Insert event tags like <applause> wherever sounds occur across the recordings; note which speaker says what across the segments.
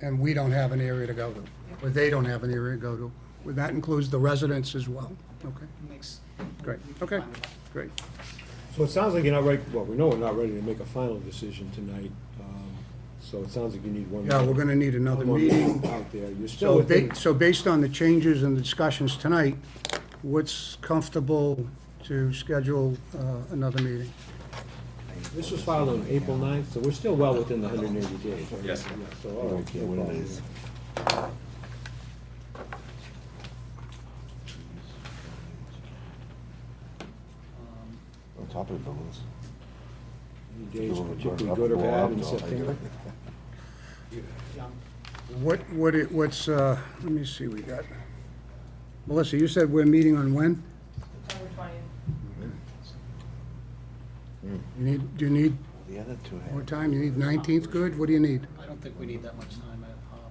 Speaker 1: and we don't have an area to go to, or they don't have an area to go to. Well, That includes the residents as well. Okay,
Speaker 2: Makes.
Speaker 1: great, okay, great.
Speaker 3: So it sounds like you're not ready, well, we know we're not ready to make a final decision tonight, um, so it sounds like you need one.
Speaker 1: Yeah, we're gonna need another
Speaker 3: one more
Speaker 1: meeting.
Speaker 3: Out there, you're still
Speaker 1: So
Speaker 3: within,
Speaker 1: ba- so based on the changes and the discussions tonight, what's comfortable to schedule uh, another meeting?
Speaker 3: this was filed on April 9th, so we're still well within the hundred and eighty days. right?
Speaker 4: Yes.
Speaker 3: Yeah, So, all right, no problem.
Speaker 2: um,
Speaker 5: On top of the balloons.
Speaker 3: Any days particularly good or bad in September?
Speaker 1: What, what, it- what's, uh, let me see, we got, Melissa, you said we're meeting on when? You need, do you need
Speaker 5: <laughs> The other two
Speaker 1: more
Speaker 5: had.
Speaker 1: time? You need 19th good? What do you need?
Speaker 2: I don't think we need that much time. uh, um,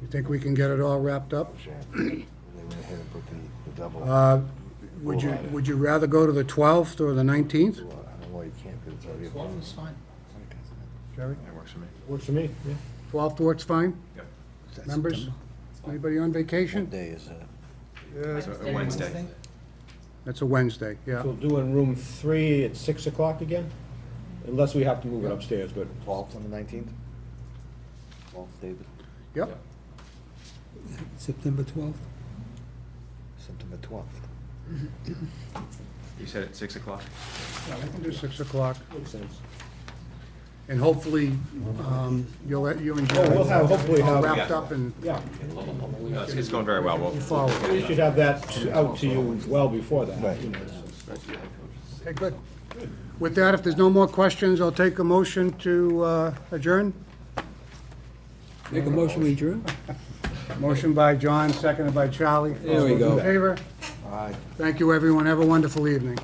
Speaker 1: You think we can get it all wrapped up?
Speaker 5: They went ahead and put the, the double. I
Speaker 1: Uh, Would you, would you rather go to the 12th or the 19th?
Speaker 5: uh, don't know why you can't, because it's already.
Speaker 2: Twelve is fine.
Speaker 1: Jerry?
Speaker 4: That works for me.
Speaker 3: Works for me, yeah.
Speaker 1: 12th works fine?
Speaker 4: Yep.
Speaker 1: Members? Anybody on
Speaker 5: What
Speaker 1: vacation?
Speaker 5: day is that?
Speaker 4: So, uh, Wednesday.
Speaker 1: That's a Wednesday, yeah.
Speaker 3: So we'll do in room three at six o'clock again, unless we have to move it upstairs, but
Speaker 5: Twelfth and the nineteenth? Twelfth, David,
Speaker 1: Yep,
Speaker 6: September 12th?
Speaker 5: September twelfth.
Speaker 4: You said at six o'clock?
Speaker 1: I can do 6 o'clock.
Speaker 3: makes sense.
Speaker 1: And hopefully, um, you'll let, you and
Speaker 3: Yeah,
Speaker 1: Jerry.
Speaker 3: we'll have, hopefully
Speaker 1: All
Speaker 3: have,
Speaker 1: wrapped up and
Speaker 3: yeah,
Speaker 4: No, it's- It's going very well. We'll-
Speaker 1: followed.
Speaker 3: we should have that out to you well before that, you know.
Speaker 1: Okay, good. With that, if there's no more questions, I'll take a motion to uh, adjourn.
Speaker 6: Make a motion, we adjourn?
Speaker 1: Motion by John, seconded by Charlie.
Speaker 6: There we go.
Speaker 1: All those in favor?
Speaker 5: All right.
Speaker 1: Thank you, everyone. Have a wonderful evening.